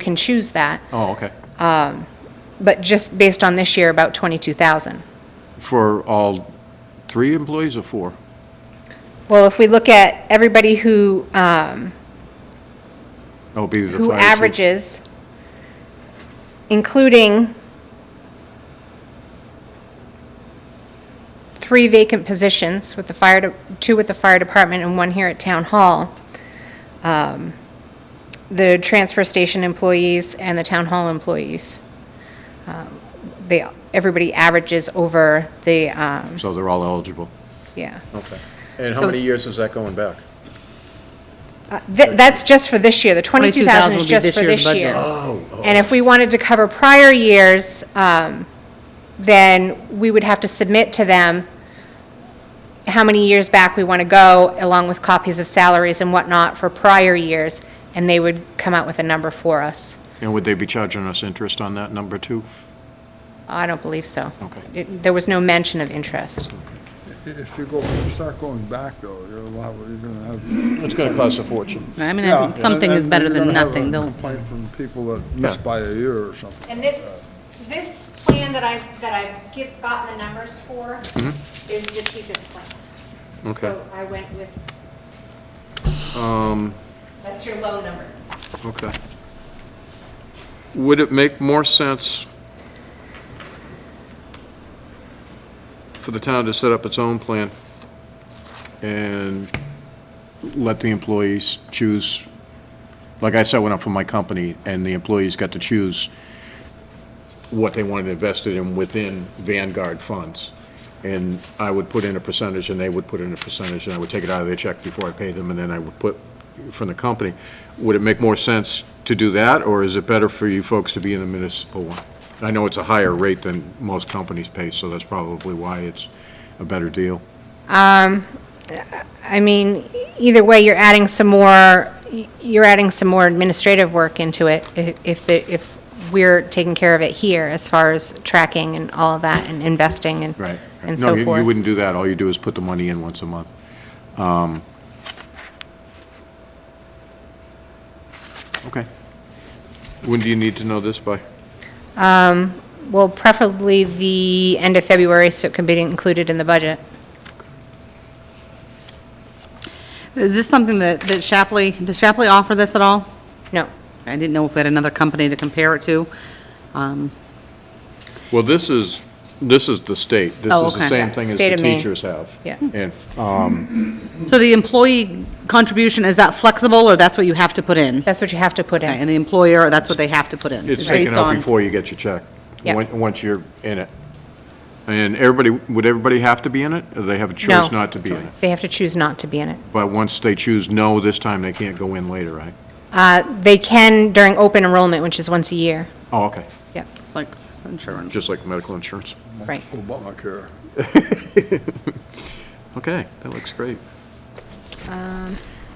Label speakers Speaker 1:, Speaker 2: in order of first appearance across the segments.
Speaker 1: can choose that,
Speaker 2: Oh, okay.
Speaker 1: but just based on this year, about 22,000.
Speaker 2: For all three employees or four?
Speaker 1: Well, if we look at everybody who, um,
Speaker 2: That would Oh, be the fire
Speaker 1: who
Speaker 2: chief.
Speaker 1: averages, including three vacant positions with the fire, de- two with the fire department and one here at town hall, um, the transfer station employees and the town hall employees. um, They, everybody averages over the, um,
Speaker 2: So they're all eligible.
Speaker 1: yeah.
Speaker 2: Okay. And
Speaker 3: So many it's-
Speaker 2: years is that going back?
Speaker 1: Th- That's just for this year, the 22,000
Speaker 3: 22,000
Speaker 1: is
Speaker 3: will be
Speaker 1: just
Speaker 3: this
Speaker 1: for
Speaker 3: year's
Speaker 1: this year.
Speaker 3: budget.
Speaker 1: And if we wanted to cover prior years, um, then we would have to submit to them how many years back we want to go, along with copies of salaries and whatnot for prior years, and they would come out with a number for us.
Speaker 2: And would they be charging us interest on that number too?
Speaker 1: I don't believe so.
Speaker 2: Okay.
Speaker 1: It- There was no mention of interest.
Speaker 4: If you go, start going back though, you're a lot, you're gonna have.
Speaker 2: It's going to cost a fortune.
Speaker 3: I mean, I
Speaker 4: Yeah,
Speaker 3: think something
Speaker 4: and-
Speaker 3: is better
Speaker 4: and
Speaker 3: than
Speaker 4: you're gonna have
Speaker 3: nothing,
Speaker 4: a
Speaker 3: though.
Speaker 4: Complaint from people that missed by a year or something.
Speaker 1: And this, this plan that I, that I've give, gotten the numbers for is the cheapest plan.
Speaker 2: Mm-hmm. Okay.
Speaker 1: So I went with.
Speaker 2: Um,
Speaker 1: That's your low number.
Speaker 2: Okay. Would it make more sense for the town to set up its own plan and let the employees choose? Like I set one up for my company, and the employees got to choose what they wanted invested in within Vanguard funds. And I would put in a percentage, and they would put in a percentage, and I would take it out of their check before I paid them, and then I would put from the company. Would it make more sense to do that, or is it better for you folks to be in the municipal one? I know it's a higher rate than most companies pay, so that's probably why it's a better deal.
Speaker 1: I mean, either way, you're adding some more, you're adding some more administrative work into it i- if, the- if we're taking care of it here as far as tracking and all of that and investing and,
Speaker 2: Right.
Speaker 1: and so
Speaker 2: No, you- you
Speaker 1: forth.
Speaker 2: wouldn't do that. All you do is put the money in once a month. Um, Okay. When do you need to know this by?
Speaker 1: Well, preferably the end of February so it can be included in the budget.
Speaker 3: Is this something that, that Shapley, does Shapley offer this at all?
Speaker 1: No.
Speaker 3: I didn't know if we had another company to compare it to. Um,
Speaker 2: Well, this is, this is the state. This
Speaker 3: Oh,
Speaker 2: is the
Speaker 3: okay.
Speaker 2: same thing as
Speaker 1: State
Speaker 2: the
Speaker 1: of Maine.
Speaker 2: teachers have.
Speaker 1: Yeah.
Speaker 2: And,
Speaker 3: So the employee contribution, is that flexible, or that's what you have to put in?
Speaker 1: That's what you have to put
Speaker 3: Okay,
Speaker 1: in.
Speaker 3: And the employer, that's what they have to put in?
Speaker 2: It's
Speaker 3: based
Speaker 2: taken out
Speaker 3: on-
Speaker 2: before you get your check.
Speaker 1: Yeah.
Speaker 2: on- Once you're in it. And everybody, would everybody have to be in it? Or they have a
Speaker 1: No.
Speaker 2: choice not to be in it?
Speaker 1: They have to choose not to be in it.
Speaker 2: But once they choose no, this time they can't go in later, right?
Speaker 1: Uh, They can during open enrollment, which is once a year.
Speaker 2: Oh, okay.
Speaker 1: Yep,
Speaker 3: It's like insurance.
Speaker 2: Just like medical insurance.
Speaker 1: right.
Speaker 4: Obamacare.
Speaker 2: Okay, that looks great.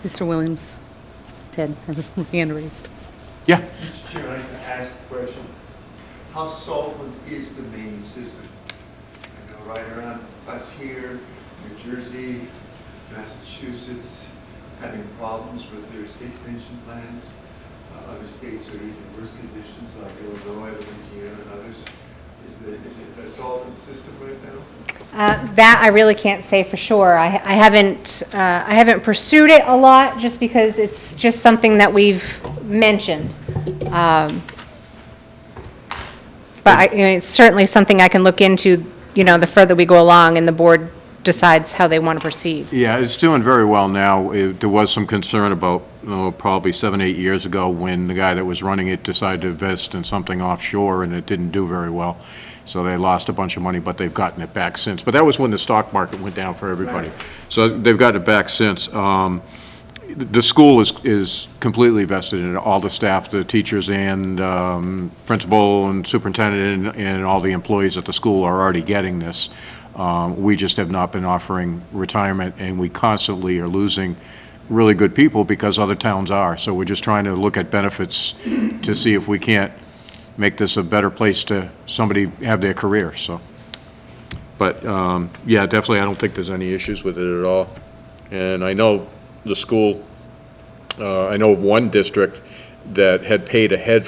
Speaker 3: Mr. Williams, Ted has his hand raised.
Speaker 2: Yeah.
Speaker 5: Mr. Chairman, I can ask a question. How solvent is the main system? I know right around us here, New Jersey, Massachusetts, having problems with their state pension plans. Uh, Other states are even worse conditions, like Illinois, Louisiana, and others. Is the, is it a solvent system right now?
Speaker 1: Uh, That I really can't say for sure. I I haven't, uh, I haven't pursued it a lot, just because it's just something that we've mentioned. Um, But I, you know, it's certainly something I can look into, you know, the further we go along and the board decides how they want to proceed.
Speaker 2: Yeah, it's doing very well now. It- There was some concern about, oh, probably seven, eight years ago, when the guy that was running it decided to invest in something offshore, and it didn't do very well. So they lost a bunch of money, but they've gotten it back since. But that was when the stock market went down for everybody. So they've gotten it back since. Um, The school is, is completely vested in it, all the staff, the teachers and um, principal and superintendent and- and all the employees at the school are already getting this. Um, We just have not been offering retirement, and we constantly are losing really good people because other towns are. So we're just trying to look at benefits to see if we can't make this a better place to somebody have their career, so. But, um, yeah, definitely, I don't think there's any issues with it at all. And I know the school, uh, I know of one district that had paid ahead